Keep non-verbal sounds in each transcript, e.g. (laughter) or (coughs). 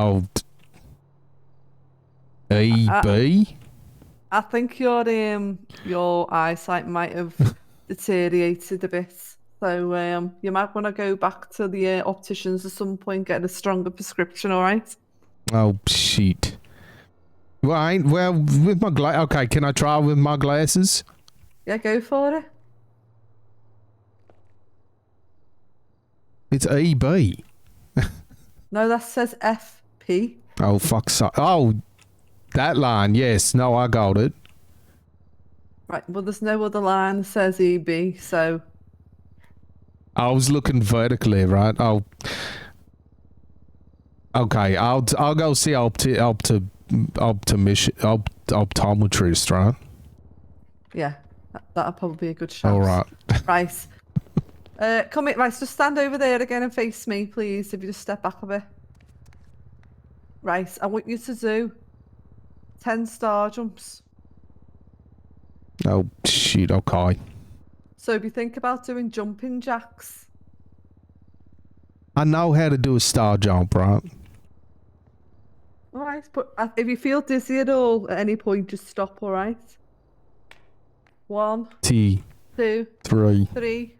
Oh. E Uh, B. I think your um your eyesight might have deteriorated a bit, so um you might want to go back to the uh, opticians at some point, get a stronger prescription. All right? Oh shit. Well, I ain't, well with my gla- okay, can I try with my glasses? Yeah, go for it. It's E B. No, that says FP. Oh fuck! So- oh, that line. Yes. No, I got it. Right. Well, there's no other line that says EB, so I was looking vertically, right? Oh. Okay, I'll I'll go see opti opti optimish opt, optometrist, right? yeah, that, that'll probably be a good shot. All right. (laughs) Right. Uh, come in, right, just stand over there again and face me, please, if you just step back a bit. Right, I want you to do 10 star jumps. Oh shit. Okay. So if you think about doing jumping jacks, I know how to do a star jump, right? all right, but uh, if you feel dizzy at all at any point, just stop, all right? One, T two, three. three.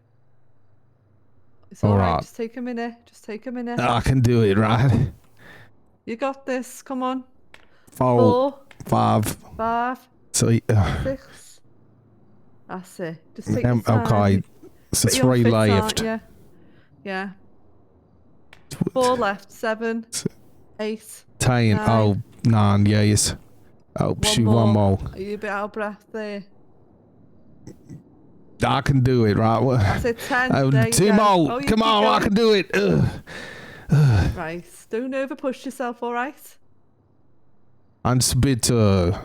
It's All all right. right. Ah. just take a minute, just take a minute. I can do it, right? You got this, come on. Four, Four, five, five, three. Uh, six. That's it. Just take um, your time. okay. You- So but you're three fit, aren't left. ya? Yeah. Four left. Seven. Eight. Ten. Nine. Oh, nine. Yes. Oh One shoot. more. One more. Are you a bit out of breath there? I can do it, right? What- I said ten. Oh, there you two go. more. Oh, you Come keep on, I going. can do it. Ugh. Right. Don't over push yourself, all right? I'm just a bit. Uh,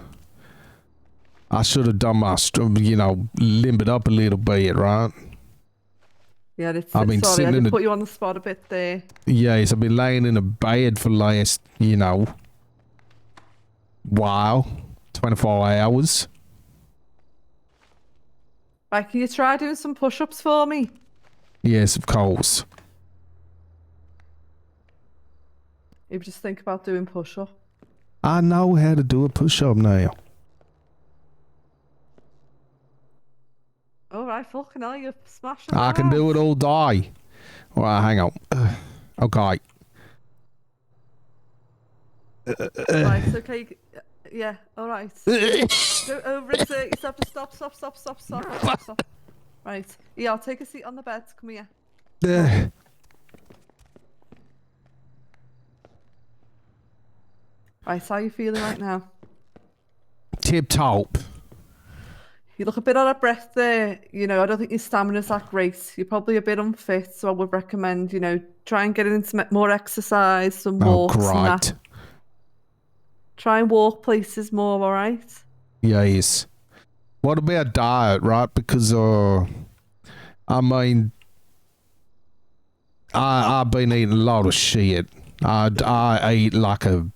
I should have done my, str- you know, limbered up a little bit, right? Yeah, it's, I've been sorry, sitting I in did the- put you on the spot a bit there. Yes, I've been laying in a bed for last, you know, while, 24 hours. Right, can you try doing some push ups for me? Yes, of course. If you just think about doing push up. I know how to do a push up now. All right, fucking hell, you're smashing. I can do it all day. All right, hang on. (sighs) Ugh. Okay. (coughs) Right, okay. Yeah, all right. Go over and say yourself to stop, stop, stop, stop, stop, stop, stop. Right. Yeah, I'll take a seat on the bed. Come here. Ugh. Right, how you feeling right now? Tip top. You look a bit out of breath there. You know, I don't think your stamina's that great. You're probably a bit unfit, so I would recommend, you know, try and get into some e, more exercise, some Oh, walks and great. that. Try and walk places more, all right? Yes. What about diet, right? Because uh I mean I I've been eating a lot of shit. I I eat like a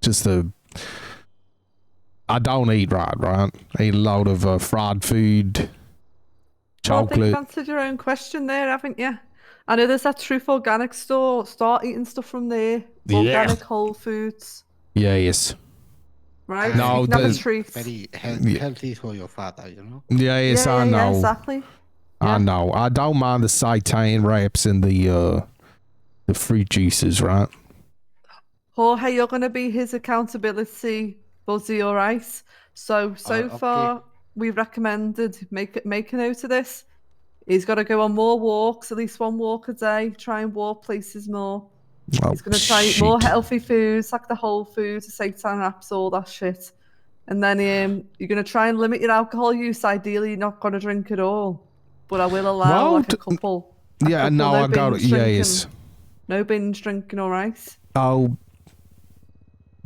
just a I don't eat right, right? I eat a lot of uh, fried food, Well, I think chocolate. you've answered your own question there, haven't you? I know there's that truth organic store. Start eating stuff from there. Yeah. Organic whole foods. Yes. Right? No, You can have a there's- treat. Very health- Yeah. healthy for your father, you know. Yes, yeah, I yeah, know. yeah, exactly. I Yeah. know. I don't mind the seitan wraps and the uh the fruit juices, right? Jorge, you're going to be his accountability buddy, all right? So, so Uh, okay. far, we've recommended make make a note of this. He's got to go on more walks, at least one walk a day. Try and walk places more. Oh, He's going to try eat more shit. healthy foods, like the whole foods, the seitan wraps, all that shit. And then um, you're going to try and limit your alcohol use. Ideally, you're not going to drink at all. But I will allow Well, like d- a couple. a Yeah, Uh, couple, no, no I got it. binge drinking. Yes. No binge drinking, all right? Oh,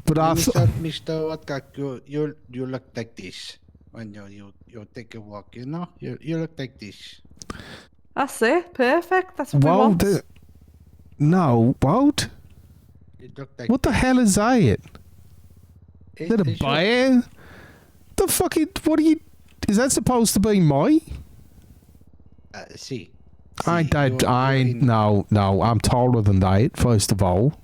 but I Mr. Mr. Woodcock, you you you look like this when you you, you take a walk, you know. You you look like this. That's it. Perfect. That's what we won't. want. do- No, won't. You look like Eh? What the hell is that? Is Is that a bear? The fucking what are you? Is that supposed to be my? Uh, see. I ain't Uh, See, that. you're- I you're ain't. in- No, no. I'm taller than that. First of all,